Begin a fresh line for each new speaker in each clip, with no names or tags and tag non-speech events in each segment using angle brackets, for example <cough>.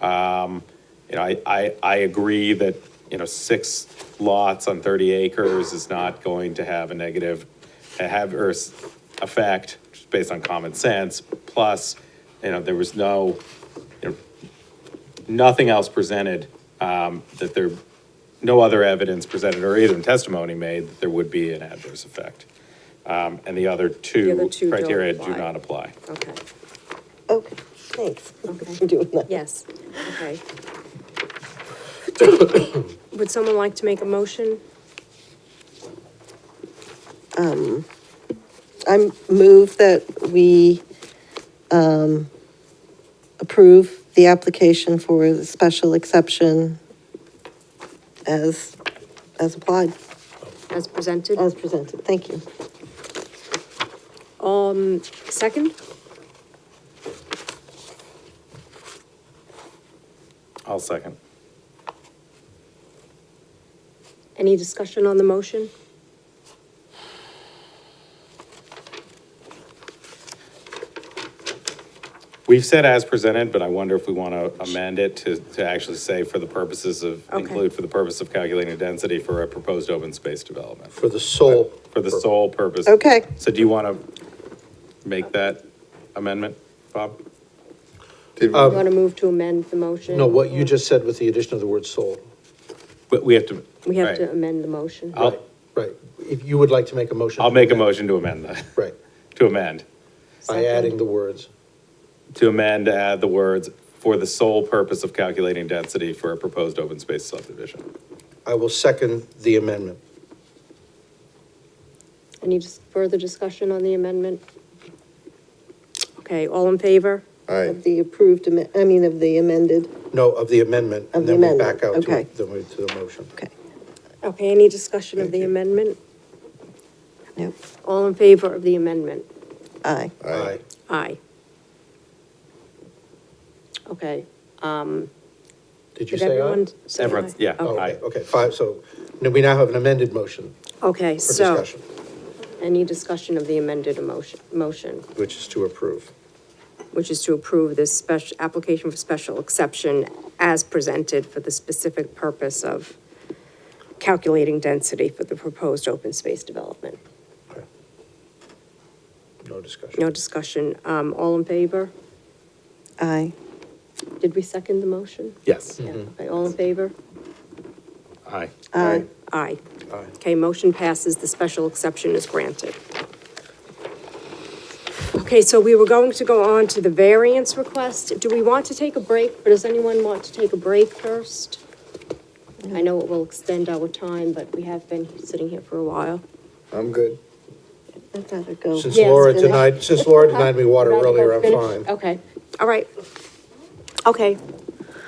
Um, You know, I, I, I agree that, you know, six lots on 30 acres is not going to have a negative, have, or s- effect, just based on common sense. Plus, you know, there was no, you know, nothing else presented, um, that there, no other evidence presented or even testimony made that there would be an adverse effect. Um, And the other two
two don't
criteria do
apply.
not apply.
Okay,
Okay, thanks <laughs> for
okay,
doing that.
yes,
<coughs>
okay. Would someone like to make a motion?
I move that we um, approve the application for the special exception as, as applied,
As presented?
as presented. Thank you.
Um, second?
I'll second.
Any discussion on the motion?
We've said as presented, but I wonder if we want to amend it to, to actually say for the purposes of,
Okay.
include for the purpose of calculating density for a proposed open space development,
For the sole.
for the sole purpose.
Okay.
So do you want to make that amendment, Bob?
Did
You want to move to amend the motion?
Um, No, what you just said with the addition of the word sole.
But we have to.
We have
right.
to amend the motion.
I'll,
Right. If you would like to make a motion.
I'll make a motion to amend that,
Right,
to amend,
by adding the words.
to amend, add the words, for the sole purpose of calculating density for a proposed open space subdivision.
I will second the amendment.
Any dis- further discussion on the amendment? Okay, all in favor?
Aye,
Of the approved, amen- I mean, of the amended,
No, of the amendment.
Of the
And then we
amendment,
back out to,
okay.
it- then we, to the motion.
okay,
Okay, any discussion of the amendment?
no,
All in favor of the amendment?
aye.
aye,
Aye.
Aye. Okay,
Did you
did
say aye?
everyone? say
Everyone-
aye?
yeah,
Oh,
Okay.
aye.
Okay, okay, five, so now we now have an amended motion
Okay,
for
so,
discussion,
any discussion of the amended emotion, motion,
which is to approve.
which is to approve this special, application for special exception as presented for the specific purpose of calculating density for the proposed open space development.
Okay. No discussion.
No discussion, um, all in favor?
Aye.
Did we second the motion?
Yes.
Yeah, okay, all in favor?
Aye.
Aye.
Aye.
Aye.
Okay, motion passes, the special exception is granted. Okay, so we were going to go on to the variance request. Do we want to take a break, or does anyone want to take a break first? I know it will extend our time, but we have been sitting here for a while.
I'm good.
I'd rather go.
Since
Yes,
Laura
finish.
denied, since Laura denied me water earlier, I'm fine.
Okay, all right. Okay.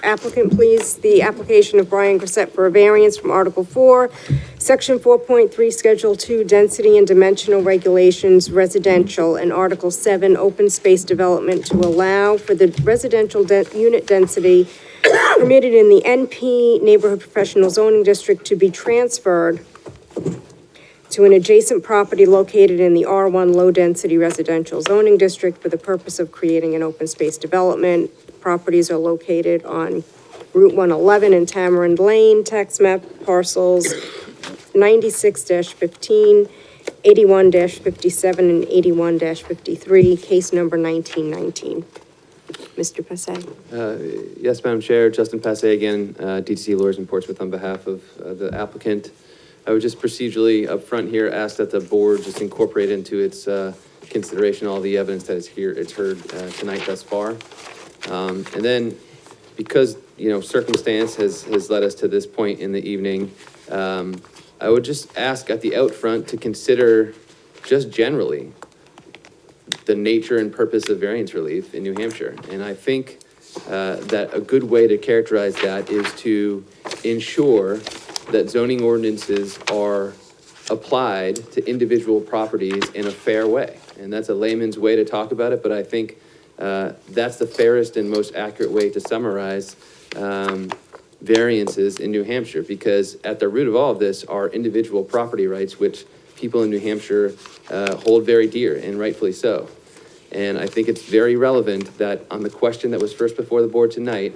Applicant, please, the application of Brian Grissett for a variance from Article Four, Section four point three, Schedule Two, Density and Dimensional Regulations Residential, and Article Seven, Open Space Development to allow for the residential de- unit density permitted in the NP Neighborhood Professional Zoning District to be transferred to an adjacent property located in the R1 Low Density Residential Zoning District for the purpose of creating an open space development. Properties are located on Route 111 and Tamarind Lane, tax map parcels 96-15, 81-57, and 81-53, case number 1919. Mr. Passay?
Yes, Madam Chair, Justin Passe again, uh, DTC Lawyers in Portsmouth on behalf of uh, the applicant. I would just procedurally up front here ask that the board just incorporate into its uh, consideration all the evidence that is here, it's heard uh, tonight thus far. Um, And then, because, you know, circumstance has, has led us to this point in the evening, um, I would just ask at the out front to consider just generally the nature and purpose of variance relief in New Hampshire. And I think uh, that a good way to characterize that is to ensure that zoning ordinances are applied to individual properties in a fair way. And that's a layman's way to talk about it, but I think uh, that's the fairest and most accurate way to summarize um, variances in New Hampshire, because at the root of all of this are individual property rights, which people in New Hampshire uh, hold very dear, and rightfully so. And I think it's very relevant that on the question that was first before the board tonight